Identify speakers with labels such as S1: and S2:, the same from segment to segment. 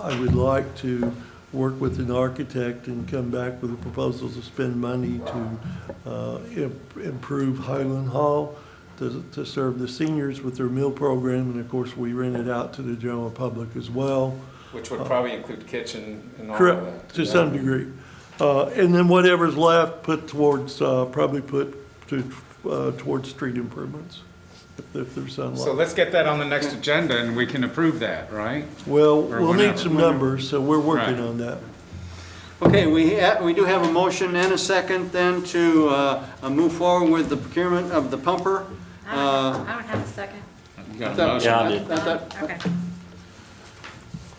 S1: I would like to work with an architect and come back with a proposal to spend money to uh, im- improve Highland Hall, to, to serve the seniors with their meal program, and of course, we rent it out to the general public as well.
S2: Which would probably include kitchen and all of that.
S1: Correct, to some degree. Uh, And then whatever's left, put towards, uh, probably put to, uh, towards street improvements, if- if there's some
S2: So
S1: left.
S2: let's get that on the next agenda and we can approve that, right?
S1: Well,
S2: or
S1: we'll need
S2: whenever.
S1: some numbers, so we're working
S2: Right.
S1: on that.
S3: Okay, we, ha- we do have a motion and a second then to uh, uh, move forward with the procurement of the pumper.
S4: I don't
S3: Uh,
S4: have- I don't have a second.
S2: You got a
S3: that-
S2: motion?
S5: Yeah, I did.
S3: that- that-
S4: Okay,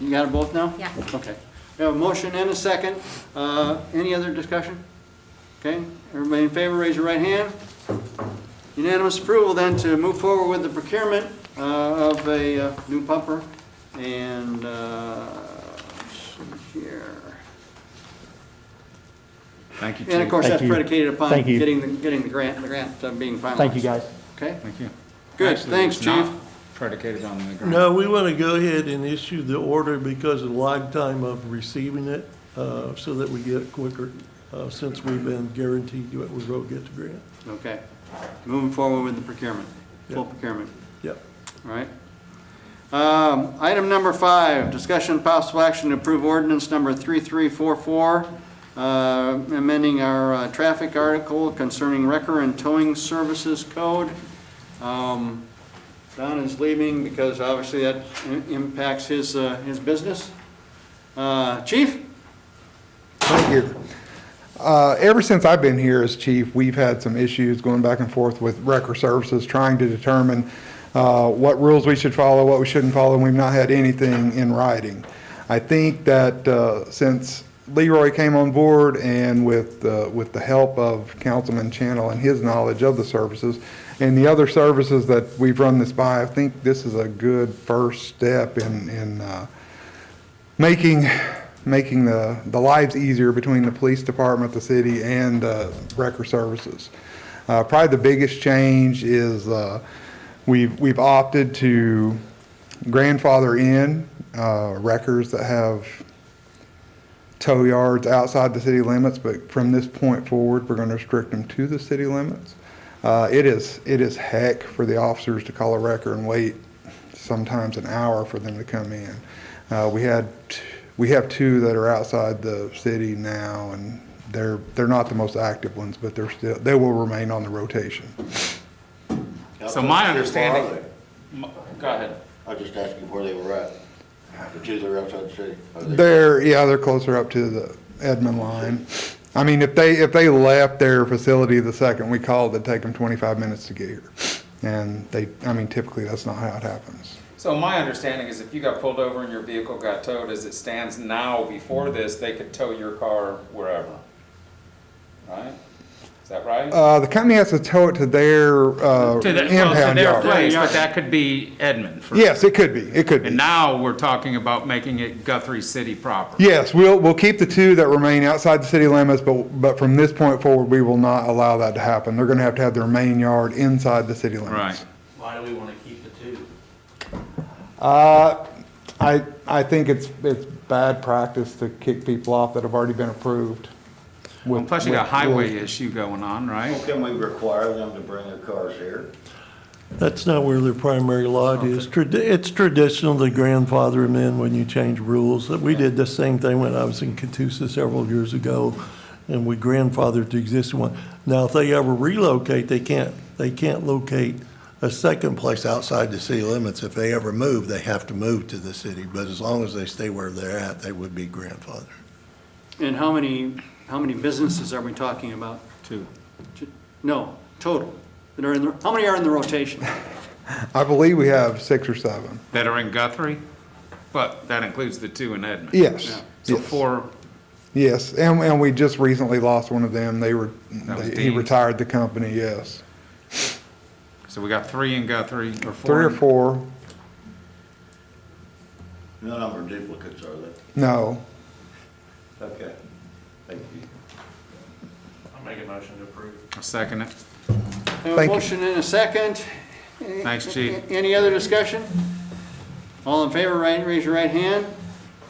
S3: You got it both now?
S4: yeah.
S3: Okay. We have a motion and a second. Uh, Any other discussion? Okay, everybody in favor, raise your right hand. Unanimous approval then to move forward with the procurement uh, of a uh, new pumper. And, uh, let's see here.
S2: Thank you,
S3: And of
S2: Chief.
S3: course,
S5: Thank
S3: that's
S5: you.
S3: predicated upon
S5: Thank you.
S3: getting, the getting the grant, the grant uh, being finalized.
S5: Thank you, guys.
S3: Okay,
S2: Thank you.
S3: Good,
S2: Actually,
S3: thanks,
S2: it's not
S3: Chief.
S2: Predicated on the grant.
S1: No, we want to go ahead and issue the order because of the lag time of receiving it, uh, so that we get it quicker, uh, since we've been guaranteed that we will get the grant.
S3: okay. Moving forward with the procurement, full
S1: Yeah.
S3: procurement,
S1: Yep.
S3: all right? Um, Item number five, discussion possible action to approve ordinance number 3344, uh, amending our uh, traffic article concerning wrecker and towing services code. Um, Don is leaving because obviously that i- impacts his, uh, his business. Uh, Chief?
S6: Thank you. Uh, Ever since I've been here as chief, we've had some issues going back and forth with Record Services, trying to determine uh, what rules we should follow, what we shouldn't follow, and we've not had anything in writing. I think that uh, since Leroy came on board and with, uh, with the help of Councilman Channel and his knowledge of the services and the other services that we've run this by, I think this is a good first step in, in uh, making, making the, the lives easier between the police department, the city, and uh, wrecker services. Uh, Probably the biggest change is uh, we've, we've opted to grandfather in uh, wreckers that have tow yards outside the city limits, but from this point forward, we're going to restrict them to the city limits. Uh, It is, it is heck for the officers to call a wrecker and wait sometimes an hour for them to come in. Uh, We had, t- we have two that are outside the city now, and they're, they're not the most active ones, but they're still, they will remain on the rotation.
S2: So my
S7: Where are
S2: understanding,
S7: they?
S2: m- go ahead.
S7: I was just asking where they were at. The two that are outside the city. Are they-
S6: They're, yeah, they're closer up to the Edmond line. I mean, if they, if they left their facility the second we called, it'd take them 25 minutes to get here. And they, I mean, typically, that's not how it happens.
S2: So my understanding is if you got pulled over and your vehicle got towed, as it stands now before this, they could tow your car wherever. Right? Is that right?
S6: Uh, The company has to tow it to their
S2: To the- well,
S6: uh,
S2: to
S6: impound
S2: their
S6: yard.
S2: place, but that could be Edmond. for-
S6: Yes, it could be, it could be.
S2: And now we're talking about making it Guthrie City proper.
S6: Yes, we'll, we'll keep the two that remain outside the city limits, but, but from this point forward, we will not allow that to happen. They're gonna have to have their main yard inside the city limits.
S2: Right.
S8: Why do we want to keep the two?
S6: Uh, I, I think it's, it's bad practice to kick people off that have already been approved.
S2: Well,
S6: with-
S2: Plus you got
S6: with-
S2: highway issue going on, right?
S7: Well, Can we require them to bring their cars here?
S1: That's not where their primary lot is. Trad- It's traditional to grandfather them in when you change rules. We did the same thing when I was in Catoosa several years ago, and we grandfathered the existing one. Now, if they ever relocate, they can't, they can't locate a second place outside the city limits. If they ever move, they have to move to the city, but as long as they stay where they're at, they would be grandfathered.
S3: And how many, how many businesses are we talking about?
S2: Two.
S3: No, total, that are in the, how many are in the rotation?
S6: I believe we have six or seven.
S2: That are in Guthrie, but that includes the two in Edmond.
S6: Yes,
S2: So
S6: yes.
S2: four,
S6: Yes, and, and we just recently lost one of them. They were,
S2: That was
S6: they- he
S2: Dean.
S6: retired the company, yes.
S2: so we got three in Guthrie or four.
S6: Three or
S2: in-
S6: four,
S7: No number of duplicates, are they?
S6: no.
S7: Okay. Thank you.
S8: I'll make a motion to approve.
S2: I'll Second it.
S3: I have a
S6: Thank you.
S3: motion and a second.
S2: Thanks, Chief.
S3: Any other discussion? All in favor, right, raise your right hand.